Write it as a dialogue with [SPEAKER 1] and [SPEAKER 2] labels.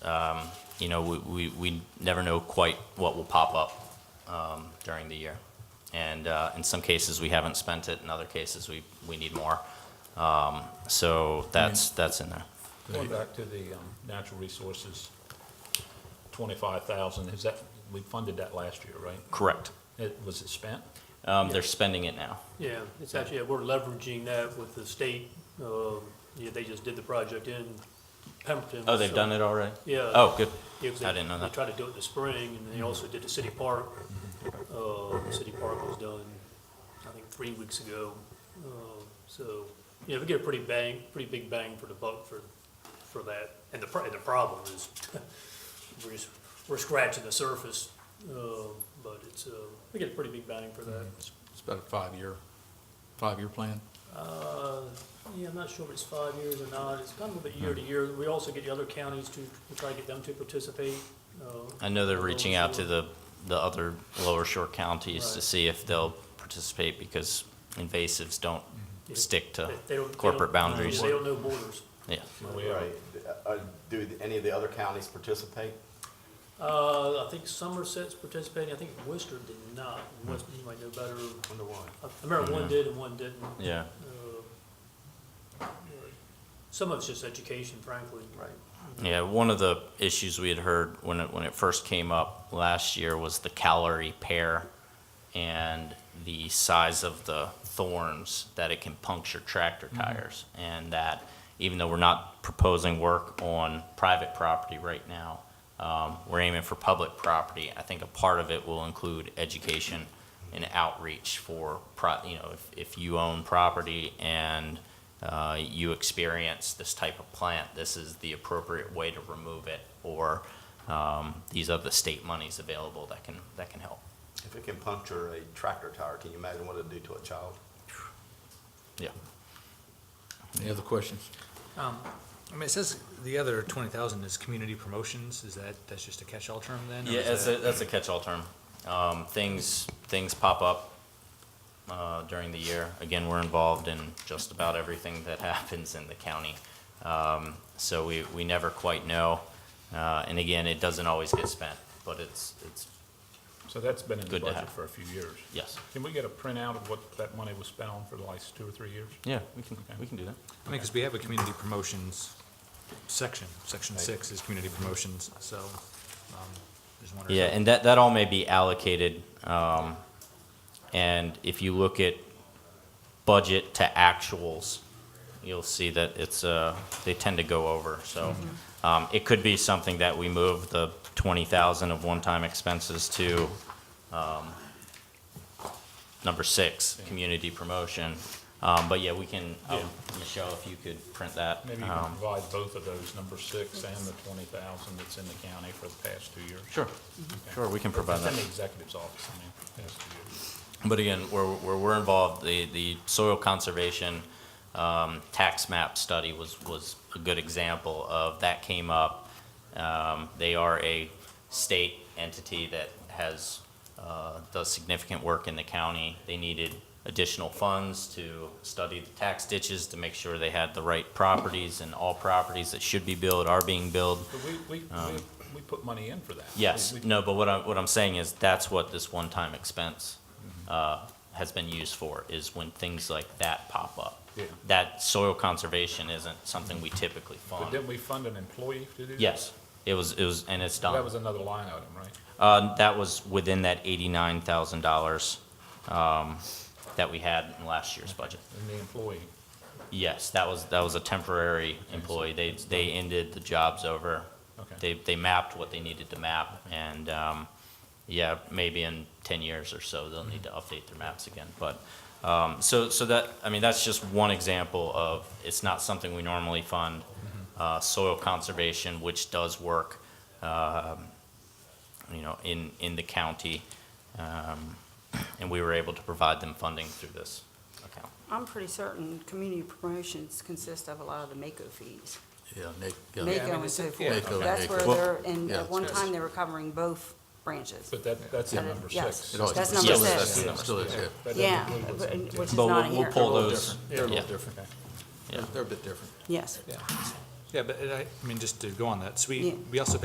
[SPEAKER 1] um, you know, we, we, we never know quite what will pop up um, during the year. And uh, in some cases, we haven't spent it, in other cases, we, we need more. Um, So that's, that's in there.
[SPEAKER 2] Going back to the um, natural resources, 25,000, is that, we funded that last year, right?
[SPEAKER 1] Correct.
[SPEAKER 2] It, was it spent?
[SPEAKER 1] Um, They're spending it now.
[SPEAKER 3] Yeah, it's actually, yeah, we're leveraging that with the state, um, yeah, they just did the project in Pemberton.
[SPEAKER 1] Oh, they've
[SPEAKER 3] so-
[SPEAKER 1] done it already?
[SPEAKER 3] Yeah.
[SPEAKER 1] Oh, good.
[SPEAKER 3] Yeah, 'cause
[SPEAKER 1] I
[SPEAKER 3] they-
[SPEAKER 1] didn't know that.
[SPEAKER 3] They tried to do it in the spring, and they also did the city park. Uh, city park was done, I think, three weeks ago. Uh, So, you know, we get a pretty bang, pretty big bang for the buck for, for that. And the, pro- and the problem is, we're just, we're scratching the surface, uh, but it's, uh, we get a pretty big bang for that.
[SPEAKER 4] It's about a five-year, five-year plan.
[SPEAKER 3] Uh, Yeah, I'm not sure if it's five years or not. It's kind of a bit year to year. We also get the other counties to, we try to get them to participate. uh,
[SPEAKER 1] I know they're reaching out to the, the other lower shore counties to
[SPEAKER 3] Right.
[SPEAKER 1] see if they'll participate because invasives don't
[SPEAKER 3] Yeah.
[SPEAKER 1] stick to
[SPEAKER 3] They- they don't- they
[SPEAKER 1] corporate
[SPEAKER 3] don't-
[SPEAKER 1] boundaries.
[SPEAKER 3] They don't know borders.
[SPEAKER 1] Yeah.
[SPEAKER 5] Right. Uh, Do any of the other counties participate?
[SPEAKER 3] Uh, I think Somerset's participating. I think Worcester did not. Worcester, you might know better.
[SPEAKER 5] Wonder why?
[SPEAKER 3] I remember
[SPEAKER 1] Yeah.
[SPEAKER 3] one did and one didn't.
[SPEAKER 1] Yeah.
[SPEAKER 3] Uh, Some of it's just education, frankly.
[SPEAKER 5] Right.
[SPEAKER 1] Yeah, one of the issues we had heard when it, when it first came up last year was the calorie pair and the size of the thorns that it can puncture tractor tires. And that even though we're not proposing work on private property right now, um, we're aiming for public property. I think a part of it will include education and outreach for, pro- you know, if, if you own property and uh, you experience this type of plant, this is the appropriate way to remove it, or um, these are the state monies available that can, that can help.
[SPEAKER 5] If it can puncture a tractor tire, can you imagine what it'd do to a child?
[SPEAKER 1] Yeah.
[SPEAKER 4] Any other questions?
[SPEAKER 6] Um, I mean, it says the other twenty thousand is community promotions, is that, that's just a catch-all term then? or
[SPEAKER 1] Yeah,
[SPEAKER 6] is
[SPEAKER 1] that's a,
[SPEAKER 6] that-
[SPEAKER 1] that's a catch-all term. Um, Things, things pop up uh, during the year. Again, we're involved in just about everything that happens in the county. Um, So we, we never quite know. Uh, And again, it doesn't always get spent, but it's, it's,
[SPEAKER 2] So that's been in the
[SPEAKER 1] Good to
[SPEAKER 2] budget
[SPEAKER 1] have.
[SPEAKER 2] for a few years.
[SPEAKER 1] yes.
[SPEAKER 2] Can we get a printout of what that money was spent on for the last two or three years?
[SPEAKER 1] Yeah, we can, we can do that.
[SPEAKER 6] I mean, because we have a community promotions section, section six is community promotions, so, um, just wondering.
[SPEAKER 2] Uh-huh.
[SPEAKER 1] Yeah, and that, that all may be allocated, um, and if you look at budget to actuals, you'll see that it's, uh, they tend to go over, so.
[SPEAKER 2] Mm-hmm.
[SPEAKER 1] Um, it could be something that we move the twenty thousand of one-time expenses to, um, number six, community promotion. Um, but yeah, we can, um, Michelle, if you could print that.
[SPEAKER 2] Maybe you can
[SPEAKER 1] um,
[SPEAKER 2] provide both of those, number six and the 20,000 that's in the county for the past two years.
[SPEAKER 1] Sure, sure, we can provide
[SPEAKER 2] It's
[SPEAKER 1] that.
[SPEAKER 2] in the executive's office, I mean, past two years.
[SPEAKER 1] But again, where, where we're involved, the, the soil conservation um, tax map study was, was a good example of, that came up. Um, They are a state entity that has, uh, does significant work in the county. They needed additional funds to study the tax ditches, to make sure they had the right properties, and all properties that should be billed are being billed.
[SPEAKER 2] But we, we, we- we put money in for that.
[SPEAKER 1] Um, Yes,
[SPEAKER 2] We- we-
[SPEAKER 1] no, but what I'm, what I'm saying is, that's what this one-time expense uh, has been used for, is when things like that pop up.
[SPEAKER 2] Yeah.
[SPEAKER 1] That soil conservation isn't something we typically
[SPEAKER 2] But
[SPEAKER 1] fund.
[SPEAKER 2] didn't we fund an employee to do that?
[SPEAKER 1] Yes, it was, it was, and it's
[SPEAKER 2] That
[SPEAKER 1] done.
[SPEAKER 2] was another line item, right?
[SPEAKER 1] Uh, That was within that eighty-nine thousand dollars um, that we had in last year's budget.
[SPEAKER 2] And the employee.
[SPEAKER 1] Yes, that was, that was a temporary employee. They, they ended, the job's over.
[SPEAKER 2] Okay.
[SPEAKER 1] They, they mapped what they needed to map, and, um, yeah, maybe in ten years or so, they'll need to update their maps again. But, um, so, so that, I mean, that's just one example of, it's not something we normally fund. Uh, soil conservation, which does work, um, you know, in, in the county, um, and we were able to provide them funding through this account.
[SPEAKER 7] I'm pretty certain community promotions consist of a lot of the MAKO fees.
[SPEAKER 4] Yeah, Nick. yeah.
[SPEAKER 7] MAKO and so
[SPEAKER 6] yeah,
[SPEAKER 7] forth.
[SPEAKER 4] okay.
[SPEAKER 7] That's where
[SPEAKER 4] Well,
[SPEAKER 7] they're, and
[SPEAKER 4] yeah,
[SPEAKER 7] at one
[SPEAKER 4] it's-
[SPEAKER 7] time, they were covering both branches.
[SPEAKER 2] But that, that's in
[SPEAKER 7] That is-
[SPEAKER 2] number
[SPEAKER 7] yes.
[SPEAKER 2] six.
[SPEAKER 4] It always-
[SPEAKER 7] That's number
[SPEAKER 4] still is,
[SPEAKER 1] six.
[SPEAKER 4] yeah, Still is, yeah.
[SPEAKER 2] That doesn't
[SPEAKER 7] Yeah,
[SPEAKER 2] include what's
[SPEAKER 7] but-
[SPEAKER 2] in-
[SPEAKER 7] and- which is
[SPEAKER 1] But
[SPEAKER 7] not
[SPEAKER 1] we'll,
[SPEAKER 7] in
[SPEAKER 1] we'll
[SPEAKER 7] here.
[SPEAKER 1] pull
[SPEAKER 4] little
[SPEAKER 1] those,
[SPEAKER 4] different. They're a
[SPEAKER 1] yeah,
[SPEAKER 4] little different.
[SPEAKER 1] Yeah.
[SPEAKER 4] They're a bit different.
[SPEAKER 7] Yes,
[SPEAKER 4] Yeah.
[SPEAKER 1] yeah.
[SPEAKER 6] Yeah, but uh, I, I mean, just to go on that, so
[SPEAKER 7] Yeah.
[SPEAKER 6] we, we also